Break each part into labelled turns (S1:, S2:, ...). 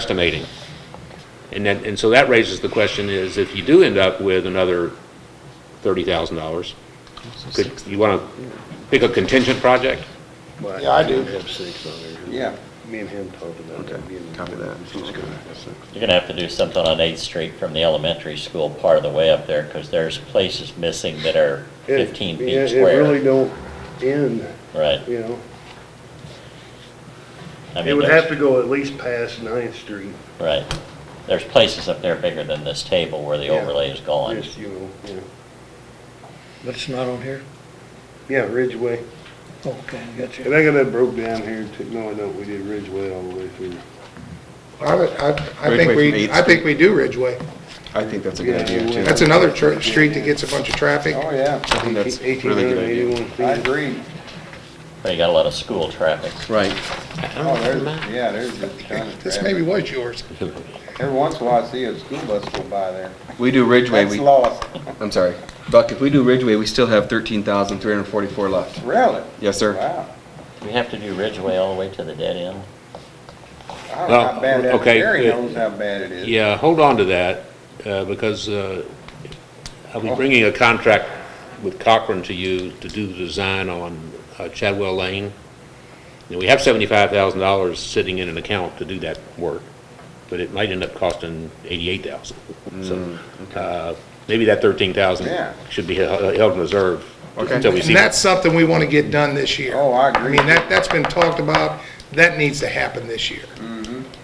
S1: estimating. And then, and so that raises the question is, if you do end up with another thirty thousand dollars, could, you wanna pick a contingent project?
S2: Yeah, I do.
S3: Have six on there.
S2: Yeah.
S3: Me and him talked about that. being-
S2: copy that.
S3: He's good.
S4: You're gonna have to do something on Eighth Street from the elementary school part of the way up there, because there's places missing that are
S3: It-
S4: fifteen
S3: yeah,
S4: feet
S3: It really
S4: square.
S3: don't end,
S4: Right.
S3: you know?
S4: I
S3: It
S4: mean,
S3: would have to
S4: there's,
S3: go at least past Ninth Street.
S4: right. There's places up there bigger than this table where the
S3: Yeah.
S4: overlay is gone.
S3: Just, you know, yeah.
S5: But it's not on here?
S3: Yeah, Ridgeway.
S5: Okay, I got
S3: And
S5: you.
S3: I got that broke down here too. No, I don't. We did Ridgeway all the way through.
S6: I, would- I, I
S2: Ridgeway
S6: think
S2: from
S6: we,
S2: Eighth
S6: I think we do Ridgeway.
S2: I think that's a good
S3: Yeah,
S2: idea
S3: we
S2: too.
S3: will.
S6: That's another tr- street that gets a bunch of traffic.
S2: Oh, yeah. I think that's a
S3: Eighteen
S2: really
S3: hundred
S2: good idea.
S3: eighty-one
S2: I
S3: feet.
S2: agree.
S6: Green.
S4: But you got a lot of school traffic.
S2: Right.
S7: Oh, there's, yeah, there's a ton of
S6: This
S7: traffic.
S6: maybe was yours.
S7: Every once in a while, I see a school bus go by there.
S2: We do Ridgeway,
S7: That's
S2: we,
S7: lost,
S2: I'm sorry. Buck, if we do Ridgeway, we still have thirteen thousand three hundred forty-four left.
S7: really?
S2: Yes, sir.
S7: Wow.
S4: We have to do Ridgeway all the way to the dead end.
S7: I don't know how bad that,
S1: Okay,
S7: Gary
S1: good.
S7: knows how bad it is.
S1: Yeah, hold on to that, uh, because uh, I'll be bringing a contract with Cochran to you to do the design on uh, Chadwell Lane. And we have seventy-five thousand dollars sitting in an account to do that work, but it might end up costing eighty-eight thousand. So, uh, maybe that thirteen thousand
S7: Yeah.
S1: should be he- held in reserve
S2: Okay.
S1: until we see.
S6: And that's something we want to get done this year.
S7: Oh, I
S6: I
S7: agree.
S6: mean, that, that's been talked about. That needs to happen this year.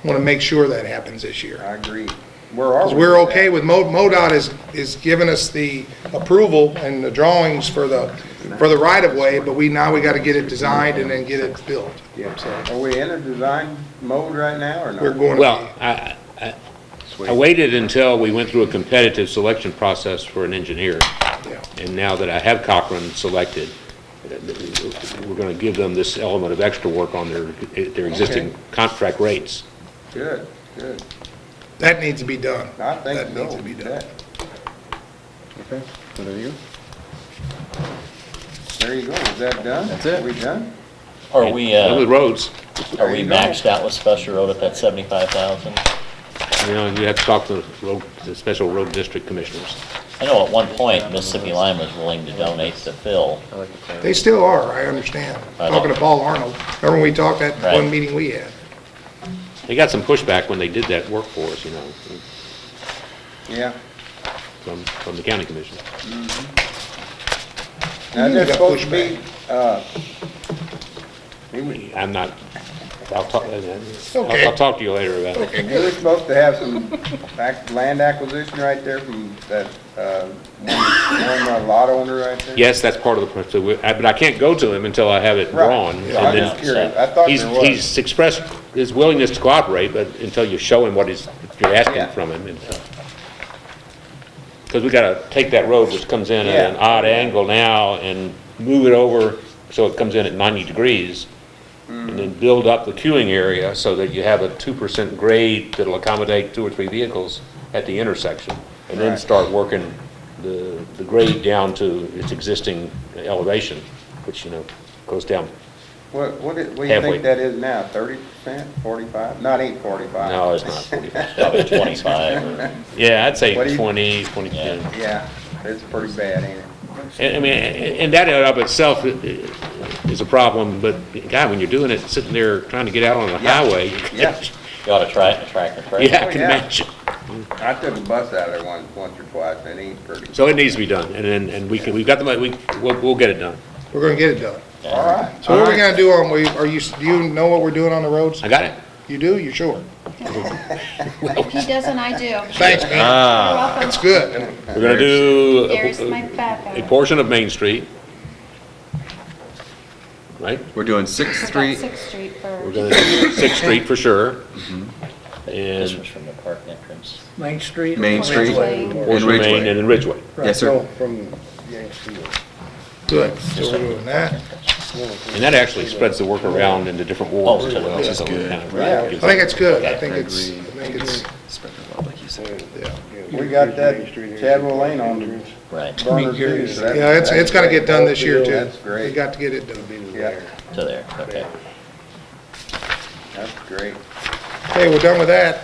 S6: Want to make sure that happens this year.
S7: Mm-hmm. I agree. Where are we?
S6: Because we're
S7: with
S6: okay with, Mo- MoDOT is, is giving us the approval and the drawings for the, for the right-of-way, but we, now we got to get it designed and then get it built.
S7: that? Are we in a design mode right now or
S6: We're
S7: not?
S6: going
S1: Well,
S6: to
S1: I, I- I, I waited until we went through a competitive selection process for an engineer.
S6: be, yeah.
S1: And now that I have Cochran selected, uh, we're going to give them this element of extra work on their, their existing
S7: Okay.
S1: contract rates.
S7: Good, good.
S6: That needs to be done.
S7: I think so.
S6: That needs to be done.
S7: That-
S2: Okay, so there you go.
S7: There you go. Is that done?
S2: That's it.
S7: Are we done?
S4: Are we,
S1: Now
S4: uh,
S1: With roads,
S4: are we
S7: you go.
S4: maxed out with special road at that seventy-five thousand?
S1: you know, you have to talk to the road, the special road district commissioners.
S4: I know at one point Mississippi Lime was willing to donate to Phil.
S2: I like the plan.
S6: They still are, I understand.
S4: I know.
S6: Talking to Paul Arnold, remember we talked that
S4: Right.
S6: one meeting we had?
S1: They got some pushback when they did that work for us, you know,
S7: Yeah.
S1: from, from the county commission.
S7: Now,
S6: You
S7: that's
S6: got
S7: supposed to be,
S6: pushback.
S7: uh, he was,
S1: I'm not, I'll talk, I'll,
S6: Okay.
S1: I'll talk to you later about it.
S7: We were supposed to have some ac- land acquisition right there from that, uh, one one lot owner right there.
S1: Yes, that's part of the, process, but I can't go to him until I have it
S7: Right.
S1: drawn. and
S7: Yeah, I was
S1: then-
S7: just curious. I thought
S1: He's,
S7: there was.
S1: he's expressed his willingness to cooperate, but until you show him what he's, you're
S7: Yeah.
S1: asking from him. and Because we gotta take that road which comes in at an
S7: Yeah.
S1: odd angle now and move it over so it comes in at 90 degrees. And
S7: Mm.
S1: then build up the queuing area so that you have a 2% grade that'll accommodate two or three vehicles at the intersection. And then
S7: Right.
S1: start working the, the grade down to its existing elevation, which, you know, goes down
S7: What, what do what do you
S1: Halfway.
S7: think that is now, thirty percent, forty-five? Not ain't forty-five.
S1: No, it's not 45.
S4: Probably twenty-five or,
S1: Yeah, I'd say
S7: What do you-
S1: 20, 20.
S4: Yeah.
S1: yeah.
S7: Yeah, it's pretty bad, ain't it?
S1: And I mean, and that in and of itself is a problem, but God, when you're doing it, sitting there trying to get out on the
S7: Yeah.
S1: highway.
S7: Yeah.
S4: you ought to try it, track and track.
S1: Yeah,
S7: Oh,
S1: I can
S7: yeah.
S1: imagine.
S7: I took a bus out of there once, once or twice, and it ain't pretty.
S1: So it needs to be done, and then, and we can, we've got the money, we, we'll, we'll get it done.
S6: We're going to get it done.
S7: All right.
S6: So what are we going to do on, we- are you, do you know what we're doing on the roads?
S1: I got it.
S6: You do, you sure?
S8: If he doesn't, I do. You're
S6: Thanks, man,
S2: Ah,
S8: welcome.
S6: that's good.
S1: We're gonna do
S8: There's my
S1: a-
S8: backup.
S1: a portion of Main Street. Right?
S2: we're doing Sixth
S8: I got
S2: Street.
S8: Sixth Street
S1: We're
S8: first.
S1: gonna do Sixth Street for sure.
S4: This was
S1: And
S4: from the park entrance.
S5: Main Street?
S2: Main Street.
S8: Ridgeway.
S2: And
S1: portion of Main and
S2: Ridgeway.
S1: then Ridgeway.
S2: Yes, sir.
S3: No, From Yankton.
S6: Good, so we're doing that.
S1: And that actually spreads the work around into different wards as well. Which is
S2: good.
S6: I think it's good, I think it's, I
S2: Agree.
S6: think it's,
S2: Spread the love, like you said.
S6: yeah.
S7: We got that Chadwell Lane on the
S4: Right,
S7: burner too. so that's-
S6: Yeah, it's, it's got to get done this year, too.
S7: That's
S6: We
S7: great.
S6: got to get it done.
S7: Yeah,
S4: to there, okay.
S7: that's great.
S6: Okay, we're done with that.